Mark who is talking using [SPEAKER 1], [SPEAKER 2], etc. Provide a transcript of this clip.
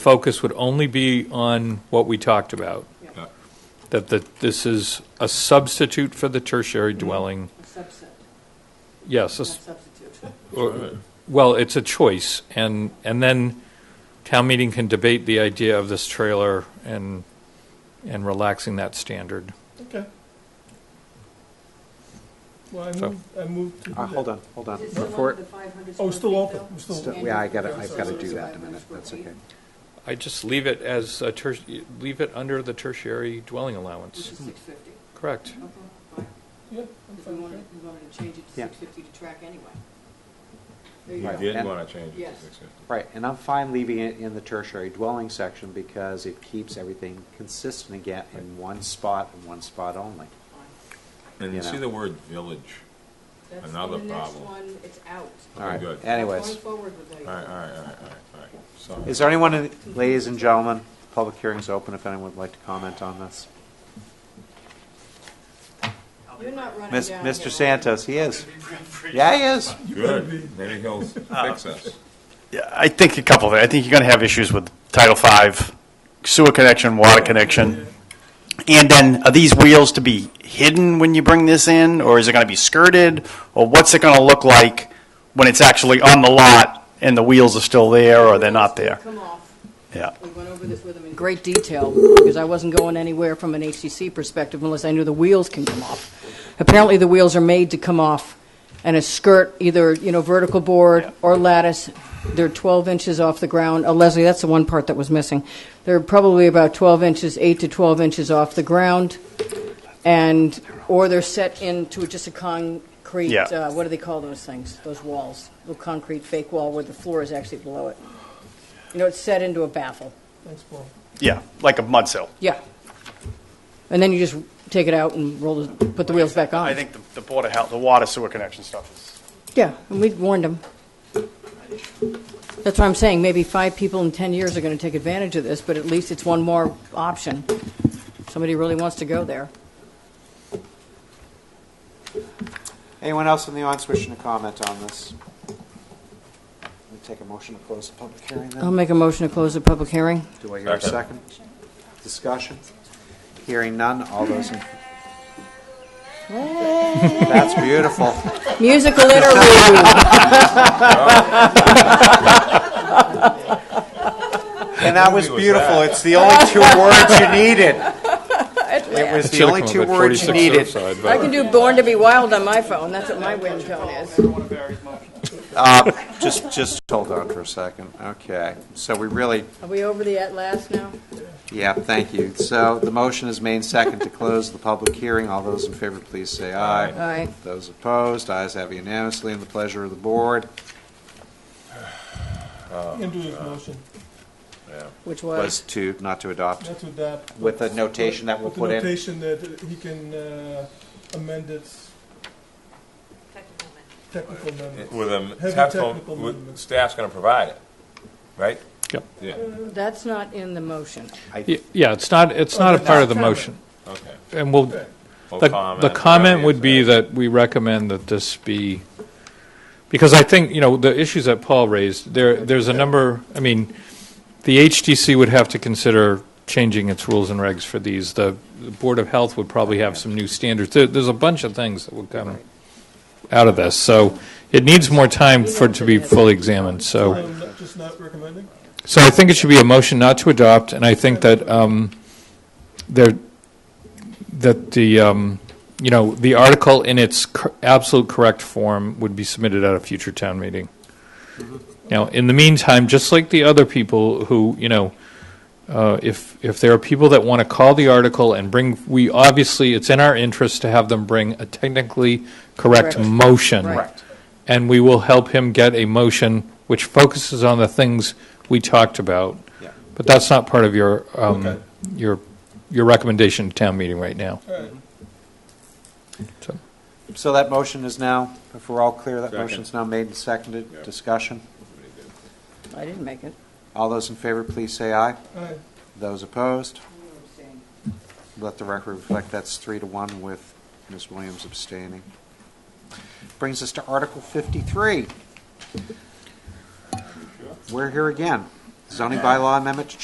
[SPEAKER 1] focus would only be on what we talked about,
[SPEAKER 2] Yeah.
[SPEAKER 1] that the, this is a substitute for the tertiary dwelling.
[SPEAKER 2] A subset,
[SPEAKER 1] Yes,
[SPEAKER 2] not
[SPEAKER 1] a s-
[SPEAKER 2] substitute.
[SPEAKER 1] or- well, it's a choice, and, and then town meeting can debate the idea of this trailer and, and relaxing that standard.
[SPEAKER 3] Okay. Well, I
[SPEAKER 1] So-
[SPEAKER 3] moved, I moved to do
[SPEAKER 4] Uh,
[SPEAKER 3] that.
[SPEAKER 4] Hold on, hold on.
[SPEAKER 2] Is it still
[SPEAKER 4] Before,
[SPEAKER 2] under the 500
[SPEAKER 3] Oh,
[SPEAKER 2] square
[SPEAKER 3] it's still
[SPEAKER 2] feet,
[SPEAKER 3] open.
[SPEAKER 2] though?
[SPEAKER 3] It's still
[SPEAKER 4] Still-
[SPEAKER 3] open.
[SPEAKER 4] yeah, I gotta, I've gotta
[SPEAKER 3] Sorry,
[SPEAKER 4] do
[SPEAKER 3] sorry.
[SPEAKER 4] that in a minute, that's okay.
[SPEAKER 1] I just leave it as a ter, leave it under the tertiary dwelling
[SPEAKER 2] Which
[SPEAKER 1] allowance,
[SPEAKER 2] is 650,
[SPEAKER 4] Mm-hmm.
[SPEAKER 1] correct?
[SPEAKER 2] okay, fine.
[SPEAKER 3] Yeah,
[SPEAKER 2] If
[SPEAKER 3] I'm
[SPEAKER 2] we
[SPEAKER 3] fine with
[SPEAKER 2] wanted, we wanted to change it to
[SPEAKER 4] Yeah.
[SPEAKER 2] 650 to track anyway. There
[SPEAKER 5] He
[SPEAKER 2] you go.
[SPEAKER 4] Right.
[SPEAKER 5] did
[SPEAKER 4] And-
[SPEAKER 5] want to change it to
[SPEAKER 2] Yes.
[SPEAKER 5] six fifty.
[SPEAKER 4] Right, and I'm fine leaving it in the tertiary dwelling section because it keeps everything consistent again in one spot and one spot only.
[SPEAKER 2] Fine.
[SPEAKER 5] And
[SPEAKER 4] You
[SPEAKER 5] you see
[SPEAKER 4] know.
[SPEAKER 5] the word village.
[SPEAKER 2] That's in
[SPEAKER 5] Another
[SPEAKER 2] the next
[SPEAKER 5] problem.
[SPEAKER 2] one, it's out.
[SPEAKER 4] All right,
[SPEAKER 5] Good.
[SPEAKER 4] anyways.
[SPEAKER 2] Going forward with
[SPEAKER 5] All
[SPEAKER 2] it.
[SPEAKER 5] right, all right, all right, all right, all right. Sorry.
[SPEAKER 4] Is there anyone, in- ladies and gentlemen, public hearing's open if anyone would like to comment on this.
[SPEAKER 2] You're not running
[SPEAKER 4] Mis-
[SPEAKER 2] down here,
[SPEAKER 4] Mr.
[SPEAKER 2] right?
[SPEAKER 4] Santos, he is. Yeah, he is.
[SPEAKER 5] Good, maybe he'll fix us.
[SPEAKER 6] Yeah, I think a couple of, I think you're going to have issues with Title V, sewer connection, water connection. And then, are these wheels to be hidden when you bring this in, or is it going to be skirted? Or what's it going to look like when it's actually on the lot and the wheels are still there or they're not there?
[SPEAKER 2] Come off.
[SPEAKER 6] Yeah.
[SPEAKER 2] We went over this with him in great detail, because I wasn't going anywhere from an HCC perspective unless I knew the wheels can come off. Apparently, the wheels are made to come off, and a skirt, either, you know, vertical board or lattice, they're 12 inches off the ground. Uh, Leslie, that's the one part that was missing. They're probably about 12 inches, 8 to 12 inches off the ground, and, or they're set into just a concrete,
[SPEAKER 6] Yeah.
[SPEAKER 2] uh, what do they call those things, those walls? A concrete fake wall where the floor is actually below it. You know, it's set into a baffle.
[SPEAKER 3] Thanks, Paul.
[SPEAKER 6] Yeah, like a mud sill.
[SPEAKER 2] Yeah. And then you just take it out and roll, the put the wheels back on.
[SPEAKER 6] I think the- the Board of Health, the water sewer connection stuff is.
[SPEAKER 2] Yeah, and we warned them. That's what I'm saying, maybe five people in 10 years are going to take advantage of this, but at least it's one more option. Somebody really wants to go there.
[SPEAKER 4] Anyone else in the audience wishing to comment on this? Let me take a motion to close the public hearing then.
[SPEAKER 2] I'll make a motion to close the public hearing.
[SPEAKER 4] Do I hear a second? Discussion? Hearing none, all those in... That's beautiful.
[SPEAKER 2] Musical interlude.
[SPEAKER 4] And that was
[SPEAKER 5] What movie was
[SPEAKER 4] beautiful.
[SPEAKER 5] that?
[SPEAKER 4] It's the only two words you needed. It was the
[SPEAKER 1] Should've
[SPEAKER 4] only
[SPEAKER 1] come up
[SPEAKER 4] two
[SPEAKER 1] at
[SPEAKER 4] words you
[SPEAKER 1] 46
[SPEAKER 4] needed.
[SPEAKER 1] Surfside,
[SPEAKER 2] I
[SPEAKER 1] but-
[SPEAKER 2] can do Born to be Wild on my phone, that's what my ringtone is.
[SPEAKER 4] Just, just hold on for a second. Okay. So we really,
[SPEAKER 2] Are we over the at last now?
[SPEAKER 4] yeah, thank you. So the motion is made second to close the public hearing. All those in favor, please say aye.
[SPEAKER 2] Aye.
[SPEAKER 4] Those opposed, ayes have unanimously, and the pleasure of the board.
[SPEAKER 3] Into his motion.
[SPEAKER 2] Which
[SPEAKER 4] was
[SPEAKER 2] was?
[SPEAKER 4] to, not to adopt,
[SPEAKER 3] That's what that.
[SPEAKER 4] with the notation that we'll
[SPEAKER 3] With the
[SPEAKER 4] put in.
[SPEAKER 3] notation that uh, he can uh, amend its technical amendment.
[SPEAKER 5] With a
[SPEAKER 3] Heavy
[SPEAKER 5] technical,
[SPEAKER 3] technical
[SPEAKER 5] with-
[SPEAKER 3] movement.
[SPEAKER 5] staff's going to provide it, right?
[SPEAKER 1] Yep.
[SPEAKER 5] Yeah,
[SPEAKER 2] That's not in the motion.
[SPEAKER 1] Y- Yeah, it's not, it's not a part of the motion,
[SPEAKER 5] okay.
[SPEAKER 1] and we'll,
[SPEAKER 3] Okay.
[SPEAKER 5] Well,
[SPEAKER 1] The, the
[SPEAKER 5] whatever
[SPEAKER 1] comment
[SPEAKER 5] you
[SPEAKER 1] would be
[SPEAKER 5] said.
[SPEAKER 1] that we recommend that this be, because I think, you know, the issues that Paul raised, there, there's a number, I mean, the HTC would have to consider changing its rules and regs for these. The the Board of Health would probably have some new standards. There, there's a bunch of things that would come out of this. So it needs more time for it to be fully examined, so.
[SPEAKER 3] So not- Just not recommending?
[SPEAKER 1] So I think it should be a motion not to adopt, and I think that um, there, that the, um, you know, the article in its cor- absolute correct form would be submitted at a future town meeting. Now, in the meantime, just like the other people who, you know, uh, if, if there are people that want to call the article and bring, we, obviously, it's in our interest to have them bring a technically correct
[SPEAKER 2] Correct.
[SPEAKER 1] motion.
[SPEAKER 2] Right. Correct.
[SPEAKER 1] And we will help him get a motion which focuses on the things we talked about.
[SPEAKER 4] Yeah.
[SPEAKER 1] But that's not part of your,
[SPEAKER 3] Okay.
[SPEAKER 1] um, your, your recommendation to town meeting right now.
[SPEAKER 3] All right.
[SPEAKER 1] So,
[SPEAKER 4] So that motion is now, if we're all clear, that
[SPEAKER 5] Second.
[SPEAKER 4] motion's now made and seconded.
[SPEAKER 5] Yep.
[SPEAKER 4] Discussion?
[SPEAKER 2] I didn't make it.
[SPEAKER 4] All those in favor, please say aye.
[SPEAKER 3] All right.
[SPEAKER 4] Those opposed, let the record reflect that's three to one with Ms. Williams abstaining. Brings us to Article 53. We're here again. zoning bylaw amendment to